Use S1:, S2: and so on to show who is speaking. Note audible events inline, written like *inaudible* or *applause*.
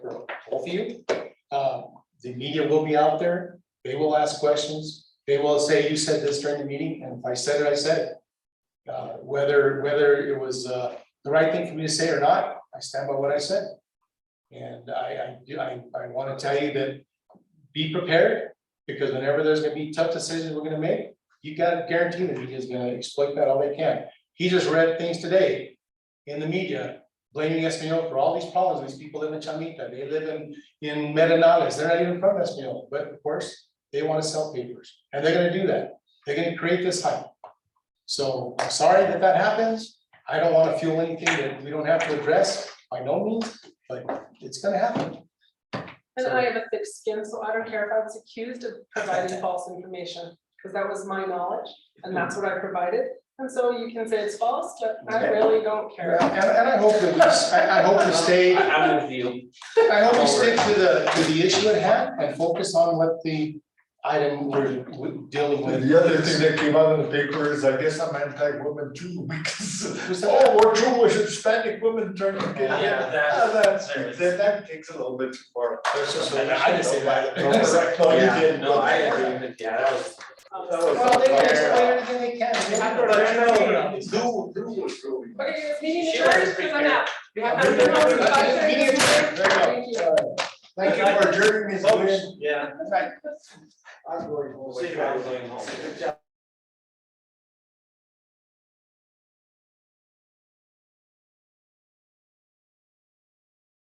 S1: both of you. Uh, the media will be out there, they will ask questions, they will say, you said this during the meeting, and if I said it, I said it. Uh, whether, whether it was, uh, the right thing for me to say or not, I stand by what I said. And I, I, do- I, I wanna tell you that, be prepared, because whenever there's gonna be tough decisions we're gonna make, you gotta guarantee the media's gonna exploit that all they can. He just read things today in the media blaming Espanol for all these problems, these people live in Chamita, they live in, in Medinales, they're not even from Espanol, but of course, they wanna sell papers, and they're gonna do that, they're gonna create this hype. So, I'm sorry that that happens, I don't wanna fuel anything that we don't have to address, by no means, but it's gonna happen.
S2: And I have a thick skin, so I don't care if I was accused of providing false information, because that was my knowledge, and that's what I provided. And so you can say it's false, but I really don't care.
S1: And, and I hope that, we s- I, I hope we stay
S3: I- I'm with you.
S1: I hope we stick to the, to the issue at hand and focus on what the item we're we're dealing with.
S4: The other thing that came out in the paper is, I guess I'm anti-woman too, *laughs* because,
S1: Who's that?
S4: oh, we're Jewish, Hispanic women turn against.
S3: Yeah,
S4: Ah,
S3: that's-
S4: That's, that, that takes a little bit too far.
S1: There's just
S3: And I didn't say that.
S4: *laughs* No, you
S3: Yeah,
S4: didn't.
S3: No, I agree with, yeah, that was,
S2: Um,
S1: Well, they can explain everything they can. They have to-
S4: Lou, Lou was really.
S2: Okay, this meeting
S3: She
S2: adjourned,
S3: was
S2: because I'm out.
S4: Yeah.
S2: Have a good one. Bye.
S1: Meeting adjourned.
S2: Thank you.
S4: Thank you for adjourning this, Lou.
S3: yeah,
S4: I'm going home.
S3: see if I was going home.